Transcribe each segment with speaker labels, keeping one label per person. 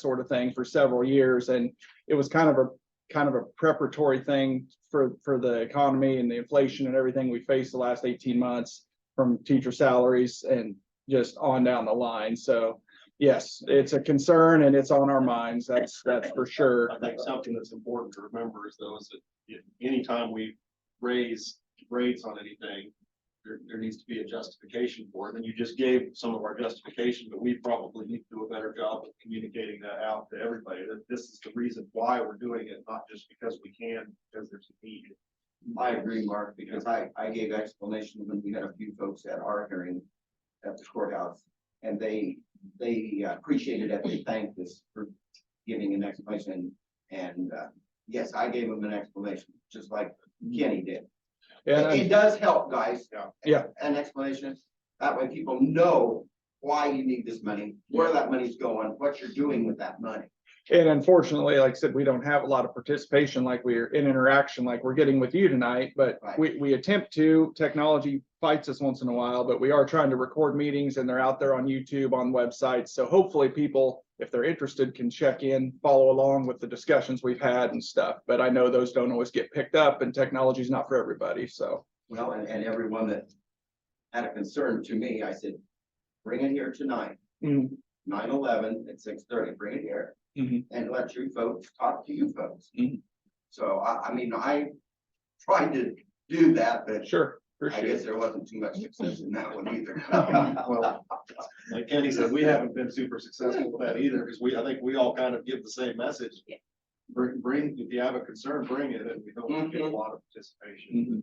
Speaker 1: sort of thing for several years. And it was kind of a, kind of a preparatory thing for, for the economy and the inflation and everything we faced the last eighteen months from teacher salaries and just on down the line. So yes, it's a concern and it's on our minds. That's, that's for sure.
Speaker 2: I think something that's important to remember is though, is that if anytime we raise rates on anything, there, there needs to be a justification for it, and you just gave some of our justification, but we probably need to do a better job of communicating that out to everybody, that this is the reason why we're doing it, not just because we can, because there's a need.
Speaker 3: I agree, Mark, because I, I gave explanation when we had a few folks at our hearing at the courthouse. And they, they uh, appreciated that, they thanked us for giving an explanation. And, uh, yes, I gave them an explanation, just like Kenny did.
Speaker 1: And
Speaker 3: It,
Speaker 1: I-
Speaker 3: it does help, guys.
Speaker 2: Yeah.
Speaker 1: Yeah.
Speaker 3: An explanation, that way people know why you need this money, where that money's going, what you're doing with that money.
Speaker 1: and unfortunately, like I said, we don't have a lot of participation like we're in interaction like we're getting with you tonight. But
Speaker 3: Right.
Speaker 1: we, we attempt to, technology fights us once in a while, but we are trying to record meetings and they're out there on YouTube, on websites. So hopefully people, if they're interested, can check in, follow along with the discussions we've had and stuff. But I know those don't always get picked up and technology's not for everybody, so.
Speaker 3: Well, and, and everyone that had a concern to me, I said, bring it here tonight,
Speaker 1: Mhm.
Speaker 3: nine eleven at six thirty, bring it here.
Speaker 1: Mhm.
Speaker 3: And let you folks talk to you folks.
Speaker 1: Mhm.
Speaker 3: So I, I mean, I tried to do that, but
Speaker 1: Sure,
Speaker 3: I
Speaker 1: appreciate
Speaker 3: guess
Speaker 1: it.
Speaker 3: there wasn't too much success in that one either.
Speaker 2: Well, Like Kenny said, we haven't been super successful with that either, because we, I think we all kind of give the same message. Bring, bring, if you have a concern, bring it, and we don't get a lot of
Speaker 1: Mhm.
Speaker 2: participation.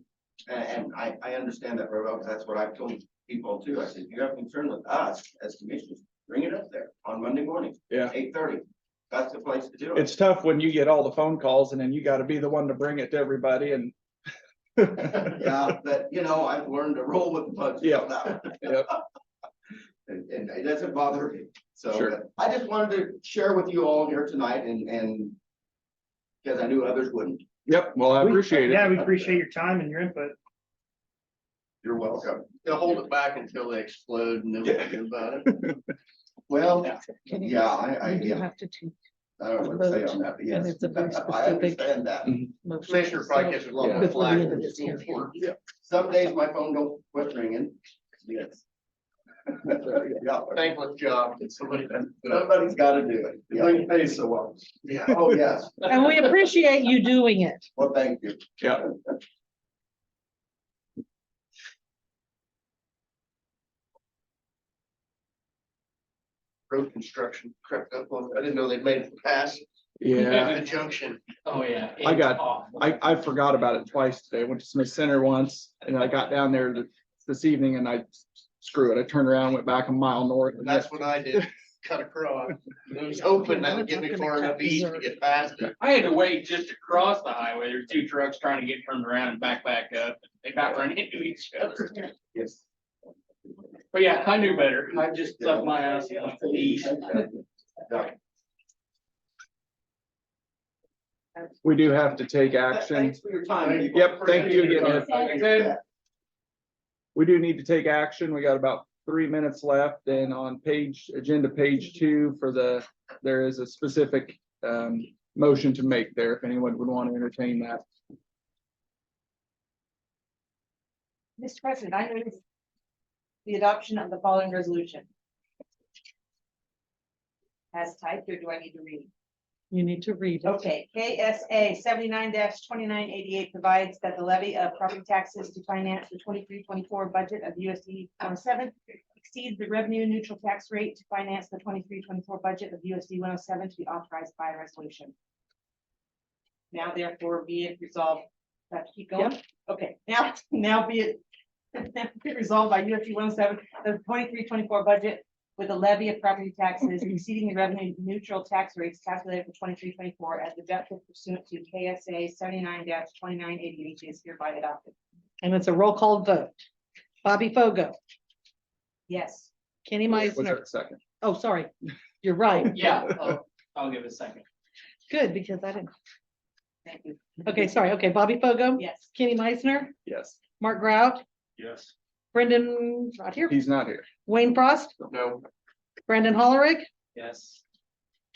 Speaker 3: And, and I, I understand that very well, because that's what I've told people too. I said, you have concern with us as commissioners, bring it up there on Monday morning,
Speaker 1: Yeah.
Speaker 3: eight thirty. That's the place to do it.
Speaker 1: It's tough when you get all the phone calls and then you gotta be the one to bring it to everybody and.
Speaker 3: Yeah, but you know, I've learned to roll with the punches.
Speaker 1: Yeah.
Speaker 3: on that one.
Speaker 1: Yep.
Speaker 3: And, and it doesn't bother me. So
Speaker 1: Sure.
Speaker 3: uh, I just wanted to share with you all here tonight and, and because I knew others wouldn't.
Speaker 1: Yep, well, I
Speaker 4: We-
Speaker 1: appreciate it.
Speaker 4: Yeah, we appreciate your time and your input.
Speaker 3: You're welcome.
Speaker 5: They'll hold it back until they explode and then we'll do about it.
Speaker 3: Well,
Speaker 6: Can you-
Speaker 3: yeah, I, I,
Speaker 6: You do
Speaker 3: yeah,
Speaker 6: have to choose
Speaker 3: I don't know what to say on that, but yes.
Speaker 6: And it's a very
Speaker 3: I
Speaker 6: specific-
Speaker 3: understand that.
Speaker 6: motion.
Speaker 5: Commissioner
Speaker 6: So-
Speaker 5: probably catches a lot
Speaker 6: Before
Speaker 5: of
Speaker 6: the
Speaker 5: flack.
Speaker 6: end of this year.
Speaker 3: Some days my phone don't quit ringing. Yes. Yeah,
Speaker 5: Thankless job that somebody does.
Speaker 3: somebody's got to do it.
Speaker 2: The
Speaker 3: Yeah.
Speaker 2: thing pays so well.
Speaker 5: Yeah.
Speaker 3: Oh, yes.
Speaker 6: And we appreciate you doing it.
Speaker 3: Well, thank you.
Speaker 1: Yeah.
Speaker 5: Road construction crept up on, I didn't know they'd made it past
Speaker 1: Yeah,
Speaker 5: the junction.
Speaker 7: Oh, yeah.
Speaker 1: I got-
Speaker 7: It's awful.
Speaker 1: I, I forgot about it twice today. I went to Smith Center once and I got down there th- this evening and I screw it. I turned around, went back a mile north.
Speaker 5: And that's what I did, cut across. I was hoping that would get me far enough east to get past it.
Speaker 7: I had to wait just across the highway. There's two trucks trying to get turned around and back back up. They about ran into each other.
Speaker 3: Yes.
Speaker 7: But yeah, I knew better. I just left my ass and went east.
Speaker 1: We do have to take action.
Speaker 3: Thanks for your time.
Speaker 1: Yep, thank you again, Ed.
Speaker 3: again.
Speaker 1: We do need to take action. We got about three minutes left and on page, agenda page two for the, there is a specific um, motion to make there if anyone would want to entertain that.
Speaker 8: Mr. President, I move the adoption of the following resolution. As typed, or do I need to read?
Speaker 6: You need to read it.
Speaker 8: Okay, KSA seventy-nine twenty-nine eighty-eight provides that the levy of property taxes to finance the 23-24 budget of USD one oh seven exceeds the revenue neutral tax rate to finance the 23-24 budget of USD one oh seven to be authorized by resolution. Now therefore be it resolved, Do I have to keep going? Okay, now, now be it be it resolved by USD one oh seven, the 23-24 budget with a levy of property taxes exceeding the revenue neutral tax rates calculated for twenty-three, twenty-four as deducted pursuant to KSA seventy-nine twenty-nine eighty-eight is hereby adopted.
Speaker 6: And it's a roll call vote. Bobby Fogo,
Speaker 8: Yes.
Speaker 6: Kenny
Speaker 1: Was there
Speaker 6: Meisner.
Speaker 1: a Second.
Speaker 6: Oh, sorry. You're right.
Speaker 7: Yeah, I'll- I'll give it a second.
Speaker 6: Good, because I didn't.
Speaker 8: Thank you.
Speaker 6: Okay, sorry. Okay, Bobby Fogo,
Speaker 8: Yes.
Speaker 6: Kenny Meisner,
Speaker 1: Yes,
Speaker 6: Mark Grout,
Speaker 2: Yes.
Speaker 6: Brendan, not here,
Speaker 1: he's not here.
Speaker 6: Wayne Frost,
Speaker 5: No,
Speaker 6: Brandon Hollerig,
Speaker 7: Yes.